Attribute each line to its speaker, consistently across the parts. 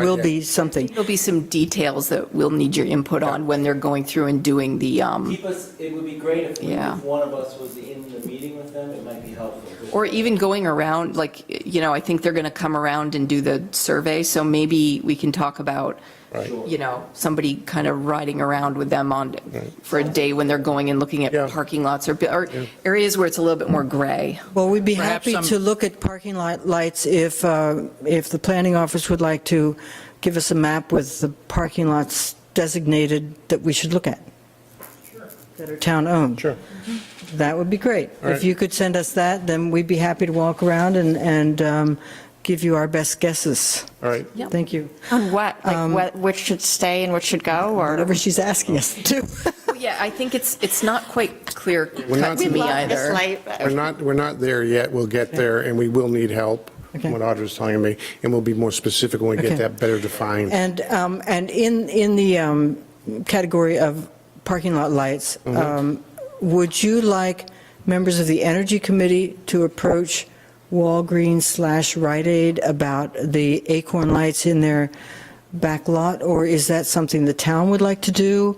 Speaker 1: will be something.
Speaker 2: There'll be some details that we'll need your input on when they're going through and doing the, um,
Speaker 3: Keep us, it would be great if
Speaker 2: Yeah.
Speaker 3: if one of us was in the meeting with them, it might be helpful.
Speaker 2: or even going around, like, you know, I think they're going to come around and do the survey, so maybe we can talk about, you know, somebody kind of riding around with them on, for a day when they're going and looking at
Speaker 4: Yeah.
Speaker 2: parking lots or, or areas where it's a little bit more gray.
Speaker 1: Well, we'd be
Speaker 5: Perhaps
Speaker 1: happy
Speaker 5: some-
Speaker 1: to look at parking lot lights if, uh, if the planning office would like to give us a map with the parking lots designated that we should look at. That are town-owned.
Speaker 4: Sure.
Speaker 1: That would be great.
Speaker 4: All
Speaker 1: If
Speaker 4: right.
Speaker 1: you could send us that, then we'd be happy to walk around and, and um, give you our best guesses.
Speaker 4: All right.
Speaker 2: Yep.
Speaker 1: Thank you.
Speaker 5: On what? Like what, which should stay and which should go or?
Speaker 1: Whatever she's asking us to do.
Speaker 2: Yeah, I think it's, it's not quite clear
Speaker 4: We're
Speaker 2: cut
Speaker 4: not-
Speaker 2: to me
Speaker 5: Love this
Speaker 2: either.
Speaker 5: light, but-
Speaker 4: We're not, we're not there yet. We'll get there, and we will need help,
Speaker 1: Okay.
Speaker 4: what Audra's telling me, and we'll be more specific when we
Speaker 1: Okay.
Speaker 4: get that better defined.
Speaker 1: And, um, and in, in the um, category of parking lot lights,
Speaker 4: Mm-hmm.
Speaker 1: um, would you like members of the Energy Committee to approach Walgreens slash Rite Aid about the Acorn lights in their back lot? Or is that something the town would like to do,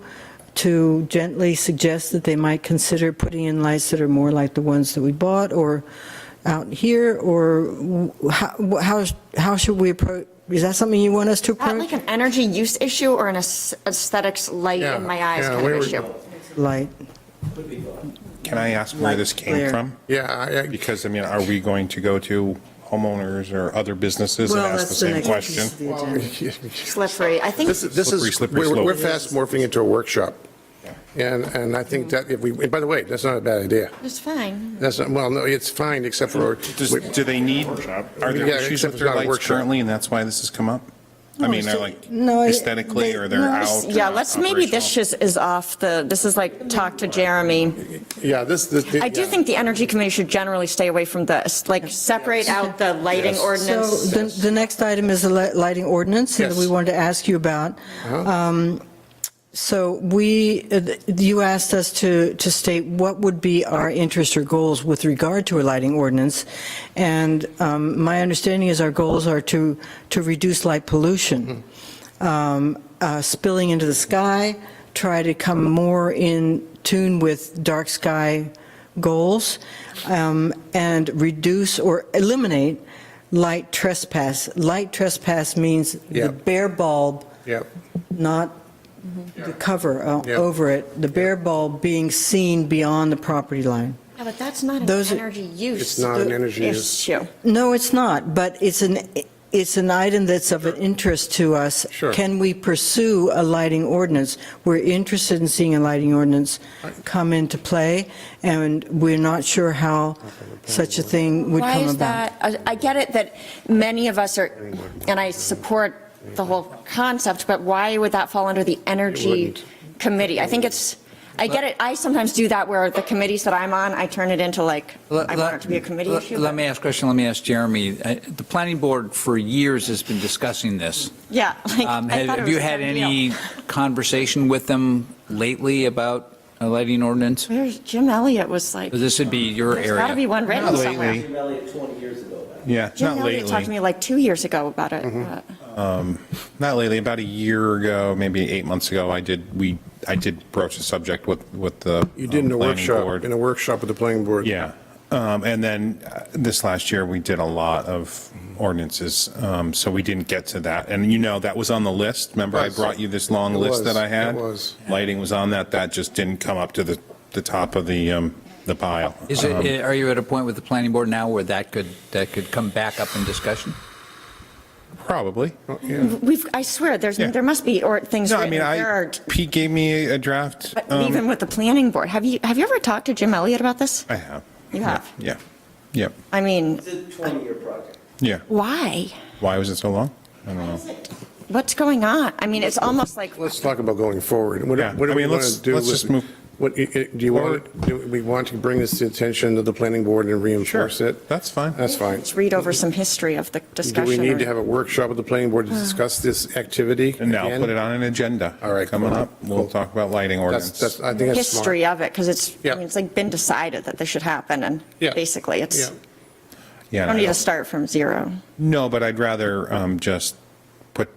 Speaker 1: to gently suggest that they might consider putting in lights that are more like the ones that we bought, or out here, or wh- how, how, how should we approach, is that something you want us to
Speaker 5: Is that
Speaker 1: approach?
Speaker 5: like an energy use issue or an aes- aesthetics light
Speaker 4: Yeah,
Speaker 5: in my eyes
Speaker 4: yeah,
Speaker 5: kind
Speaker 4: we
Speaker 5: of
Speaker 4: were-
Speaker 5: issue?
Speaker 1: Light.
Speaker 6: Can I ask where this came
Speaker 1: Like
Speaker 6: from?
Speaker 4: Yeah, I- I-
Speaker 6: Because, I mean, are we going to go to homeowners or other businesses and ask the same question?
Speaker 5: Slippery. I think
Speaker 4: this is, this
Speaker 6: Slippery,
Speaker 4: is,
Speaker 6: slippery
Speaker 4: we're we're
Speaker 6: slope.
Speaker 4: fast morphing into a workshop. And, and I think that if we, and by the way, that's not a bad idea.
Speaker 5: it's fine.
Speaker 4: That's, not well, no, it's fine, except for,
Speaker 6: Does- Do they need, are there
Speaker 4: Yeah,
Speaker 6: issues
Speaker 4: except
Speaker 6: with
Speaker 4: it's
Speaker 6: their
Speaker 4: not a
Speaker 6: lights
Speaker 4: workshop.
Speaker 6: currently, and that's why this has come up? I mean, they're like
Speaker 1: no, it-
Speaker 6: aesthetically, or they're
Speaker 1: no,
Speaker 6: out?
Speaker 5: Yeah,
Speaker 6: or
Speaker 5: let's, maybe this
Speaker 6: operational?
Speaker 5: just is off the, this is like talk to Jeremy.
Speaker 4: yeah, this, this.
Speaker 5: I do
Speaker 4: yeah.
Speaker 5: think the energy committee should generally stay away from the, like, separate out the lighting
Speaker 1: So
Speaker 5: ordinance.
Speaker 1: the, the next item is the li- lighting ordinance that
Speaker 4: Yes.
Speaker 1: we wanted to ask you about. Um, So we, uh, th- you asked us to, to state what would be our interests or goals with regard to a lighting ordinance. And um, my understanding is our goals are to, to reduce light pollution, um, uh, spilling into the sky, try to come more in tune with dark sky goals, um, and reduce or eliminate light trespass. Light trespass means the
Speaker 4: Yep.
Speaker 1: bare bulb
Speaker 4: Yeah,
Speaker 1: not the cover o-
Speaker 4: Mm-hmm. Yeah.
Speaker 1: over it, the bare bulb being seen beyond the property line.
Speaker 5: Yeah, but that's not an
Speaker 1: Those are-
Speaker 5: energy use.
Speaker 4: It's not an energy use.
Speaker 5: Issue.
Speaker 1: No, it's not, but it's an, it's an item that's of an interest to us.
Speaker 4: Sure.
Speaker 1: Can we pursue a lighting ordinance? We're interested in seeing a lighting ordinance come into play, and we're not sure how such a thing would
Speaker 5: Why
Speaker 1: come
Speaker 5: is
Speaker 1: about.
Speaker 5: that? I I get it that many of us are, and I support the whole concept, but why would that fall under the energy
Speaker 4: wouldn't.
Speaker 5: committee? I think it's, I get it, I sometimes do that where the committees that I'm on, I turn it into like,
Speaker 7: Let-
Speaker 5: I
Speaker 7: let-
Speaker 5: want it to be a committee
Speaker 7: let-
Speaker 5: issue.
Speaker 7: Let
Speaker 5: but-
Speaker 7: me ask a question, let me ask Jeremy. Uh, The planning board for years has been discussing this.
Speaker 5: Yeah. like,
Speaker 7: Um,
Speaker 5: I
Speaker 7: Have
Speaker 5: thought it was
Speaker 7: have you
Speaker 5: a
Speaker 7: had
Speaker 5: done deal.
Speaker 7: any conversation with them lately about a lighting ordinance?
Speaker 5: Where's Jim Elliott was like,
Speaker 7: This would be your
Speaker 5: there's got to be
Speaker 7: area.
Speaker 5: one written
Speaker 6: Not
Speaker 5: somewhere.
Speaker 6: lately.
Speaker 3: Jim Elliott 20 years ago, about it.
Speaker 6: Yeah,
Speaker 5: Jim
Speaker 6: not
Speaker 5: Elliott talked to
Speaker 6: lately. Mm-hmm. Um,
Speaker 5: me like two years ago about it. but-
Speaker 6: Not lately, about a year ago, maybe eight months ago, I did, we, I did broach the subject with, with the.
Speaker 4: you did in
Speaker 6: um,
Speaker 4: a
Speaker 6: planning
Speaker 4: workshop,
Speaker 6: board.
Speaker 4: in a workshop with the planning board.
Speaker 6: Yeah. Um, And then uh, this last year, we did a lot of ordinances, um, so we didn't get to that. And you know, that was on the list. Remember, I
Speaker 4: Yes.
Speaker 6: brought you this long
Speaker 4: It
Speaker 6: list
Speaker 4: was.
Speaker 6: that I had?
Speaker 4: It was.
Speaker 6: Lighting was on that. That just didn't come up to the, the top of the, um, the pile.
Speaker 7: Is
Speaker 6: Um,
Speaker 7: it, are you at a point with the planning board now where that could, that could come back up in discussion?
Speaker 6: Probably.
Speaker 5: We've, I swear, there's,
Speaker 6: Yeah.
Speaker 5: there must be, or things
Speaker 6: No, I
Speaker 5: written.
Speaker 6: mean,
Speaker 5: There
Speaker 6: I,
Speaker 5: are
Speaker 6: Pete gave me a draft.
Speaker 5: But
Speaker 6: um,
Speaker 5: even with the planning board, have you, have you ever talked to Jim Elliott about this?
Speaker 6: I have.
Speaker 5: You have?
Speaker 6: Yeah. Yeah.
Speaker 5: I mean,
Speaker 3: It's a 20-year project.
Speaker 6: Yeah.
Speaker 5: why?
Speaker 6: Why was it so long? I don't know.
Speaker 5: What's going on? I mean, it's almost like,
Speaker 4: Let's talk about going forward. What
Speaker 6: Yeah,
Speaker 4: what do
Speaker 6: I
Speaker 4: we
Speaker 6: mean,
Speaker 4: want
Speaker 6: let's-
Speaker 4: to do?
Speaker 6: let's
Speaker 4: with-
Speaker 6: just move
Speaker 4: What, i- i- do you want, do we want to bring this to the attention of the planning board and reinforce it?
Speaker 6: That's fine.
Speaker 4: That's fine.
Speaker 5: let's read over some history of the
Speaker 4: Do we
Speaker 5: discussion.
Speaker 4: need to
Speaker 5: or- Uh.
Speaker 4: have a workshop with the planning board to discuss this activity?
Speaker 6: And now
Speaker 4: again?
Speaker 6: put it on an agenda.
Speaker 4: All right,
Speaker 6: Coming
Speaker 4: cool.
Speaker 6: up, we'll
Speaker 4: Cool.
Speaker 6: talk about lighting
Speaker 4: That's,
Speaker 6: ordinance.
Speaker 4: that's, I think that's smart.
Speaker 5: History of it, because it's, I
Speaker 4: Yeah.
Speaker 5: mean, it's like been decided that this should happen, and
Speaker 4: Yeah.
Speaker 5: basically, it's,
Speaker 4: Yeah.
Speaker 6: Yeah.
Speaker 5: I
Speaker 6: and I
Speaker 5: don't need to
Speaker 6: don't-
Speaker 5: start from zero.
Speaker 6: No, but I'd rather um, just put